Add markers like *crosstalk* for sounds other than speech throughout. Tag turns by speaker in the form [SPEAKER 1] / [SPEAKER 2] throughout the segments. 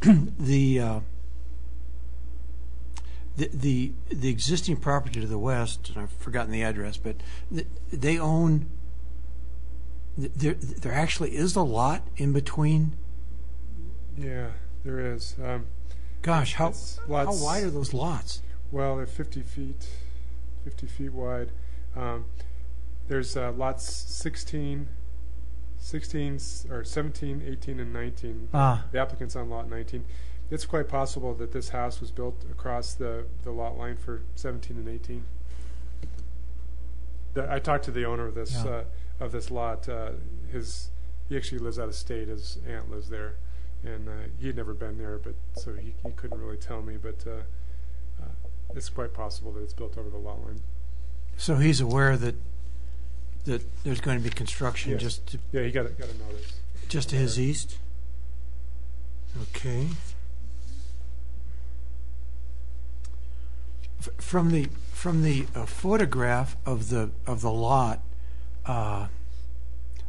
[SPEAKER 1] *clears throat* the, uh, the, the, the existing property to the west, and I've forgotten the address, but th- they own, th- there, there actually is a lot in between.
[SPEAKER 2] Yeah, there is. Um,
[SPEAKER 1] Gosh, how,
[SPEAKER 2] It's
[SPEAKER 1] how
[SPEAKER 2] lots-
[SPEAKER 1] wide are those lots?
[SPEAKER 2] well, they're 50 feet, 50 feet wide. Um, there's uh, lots 16, 16, s- or 17, 18, and 19.
[SPEAKER 1] Ah,
[SPEAKER 2] The applicant's on lot 19. It's quite possible that this house was built across the, the lot line for 17 and 18. The, I talked to the owner of this
[SPEAKER 1] Yeah.
[SPEAKER 2] uh, of this lot. Uh, his he actually lives out of state. His aunt lives there, and uh, he had never been there, but so he, he couldn't really tell me. But uh, uh, it's quite possible that it's built over the lot line.
[SPEAKER 1] so he's aware that, that there's going to be construction
[SPEAKER 2] Yes.
[SPEAKER 1] just, to-
[SPEAKER 2] Yeah, he got a, got a notice.
[SPEAKER 1] just to his east? Okay. F- From the, from the uh, photograph of the, of the lot, uh,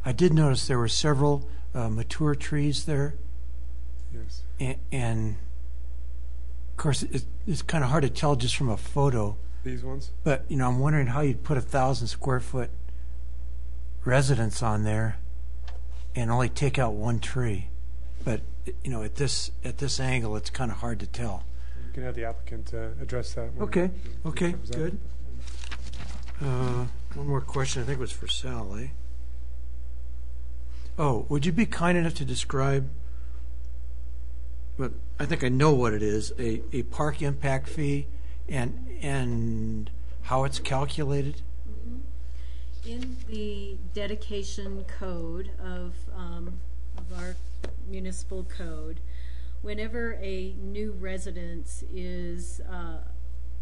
[SPEAKER 1] I did notice there were several uh, mature trees there.
[SPEAKER 2] Yes.
[SPEAKER 1] And, and of course, it, it's kind of hard to tell just from a photo,
[SPEAKER 2] These ones.
[SPEAKER 1] but you know, I'm wondering how you'd put a thousand square foot residence on there and only take out one tree. But you know, at this at this angle, it's kind of hard to tell.
[SPEAKER 2] You can have the applicant uh, address that. When
[SPEAKER 1] Okay,
[SPEAKER 2] he- he
[SPEAKER 1] okay,
[SPEAKER 2] comes up.
[SPEAKER 1] good. Uh, one more question. I think it was for Sally. Oh, would you be kind enough to describe? But I think I know what it is: a, a park impact fee, and and how it's calculated.
[SPEAKER 3] In the dedication code of, um, of our municipal code, whenever a new residence is, uh,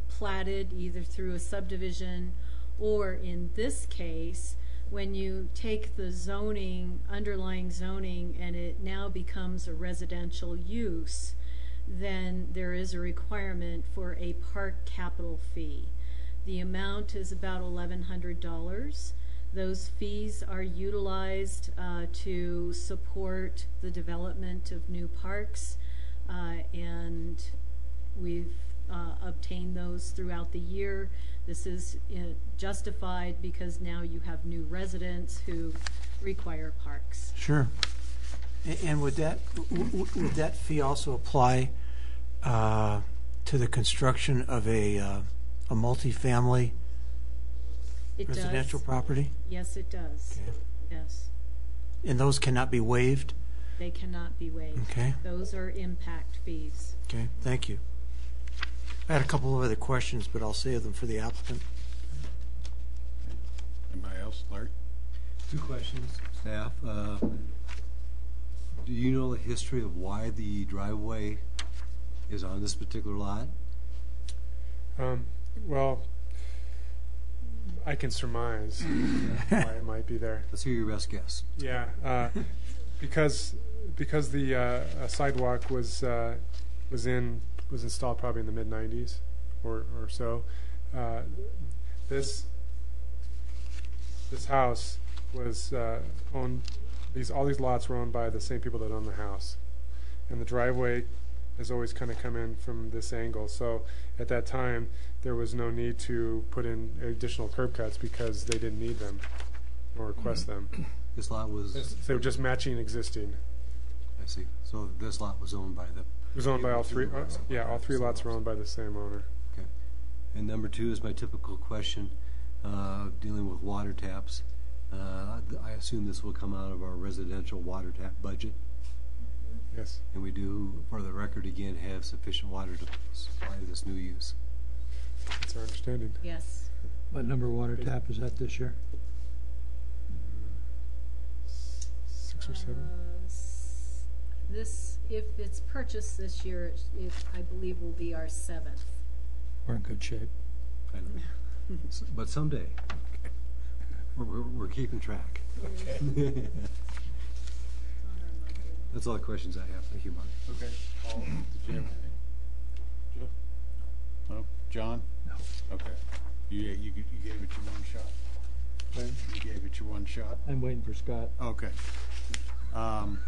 [SPEAKER 3] platted either through a subdivision or in this case, when you take the zoning, underlying zoning, and it now becomes a residential use, then there is a requirement for a park capital fee. The amount is about eleven hundred dollars. Those fees are utilized uh, to support the development of new parks, uh, and we've uh, obtained those throughout the year. This is uh, justified because now you have new residents who require parks.
[SPEAKER 1] Sure. A- And would that, w- w- would that fee also apply uh, to the construction of a, uh, a multifamily
[SPEAKER 3] It does.
[SPEAKER 1] residential property?
[SPEAKER 3] Yes, it does.
[SPEAKER 1] Okay.
[SPEAKER 3] Yes,
[SPEAKER 1] And those cannot be waived?
[SPEAKER 3] they cannot be waived.
[SPEAKER 1] Okay,
[SPEAKER 3] Those are impact fees.
[SPEAKER 1] okay, thank you. I had a couple of other questions, but I'll save them for the applicant.
[SPEAKER 4] Anybody else, Larry?
[SPEAKER 5] Two questions, staff. Uh, Do you know the history of why the driveway is on this particular lot?
[SPEAKER 2] Um, well, I can surmise why it might be there.
[SPEAKER 5] Let's hear your best guess.
[SPEAKER 2] Yeah, uh, because because the uh, uh, sidewalk was uh, was in was installed probably in the mid '90s or or so. Uh, this this house was uh, owned. These all these lots were owned by the same people that own the house, and the driveway has always kind of come in from this angle. So at that time, there was no need to put in additional curb cuts because they didn't need them or request them.
[SPEAKER 5] This lot was,
[SPEAKER 2] They were just matching existing.
[SPEAKER 5] I see, so this lot was owned by the,
[SPEAKER 2] It was owned by all three, uh, yeah, all three lots were owned by the same owner.
[SPEAKER 5] and number two is my typical question, uh, dealing with water taps. Uh, I assume this will come out of our residential water tap budget,
[SPEAKER 2] Yes.
[SPEAKER 5] and we do, for the record again, have sufficient water to supply this new use.
[SPEAKER 2] That's our understanding.
[SPEAKER 3] Yes.
[SPEAKER 6] What number water tap is that this year?
[SPEAKER 2] Uh, Six or seven?
[SPEAKER 3] Uh, s- This, if it's purchased this year, it- it, I believe, will be our seventh.
[SPEAKER 6] We're in good shape.
[SPEAKER 5] I know. S- But someday, we're, we're, we're keeping track. *laughs*
[SPEAKER 3] on our monthly.
[SPEAKER 5] That's all the questions I have. Thank you, Mark.
[SPEAKER 4] Okay. Paul, did you have anything? Joe? No? John?
[SPEAKER 6] No.
[SPEAKER 4] Okay. You, you, you gave it your one shot? You gave it your one shot?
[SPEAKER 6] I'm waiting for Scott.
[SPEAKER 4] Okay. Um,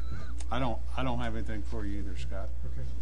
[SPEAKER 4] I don't, I don't have anything for you either, Scott.
[SPEAKER 2] Okay.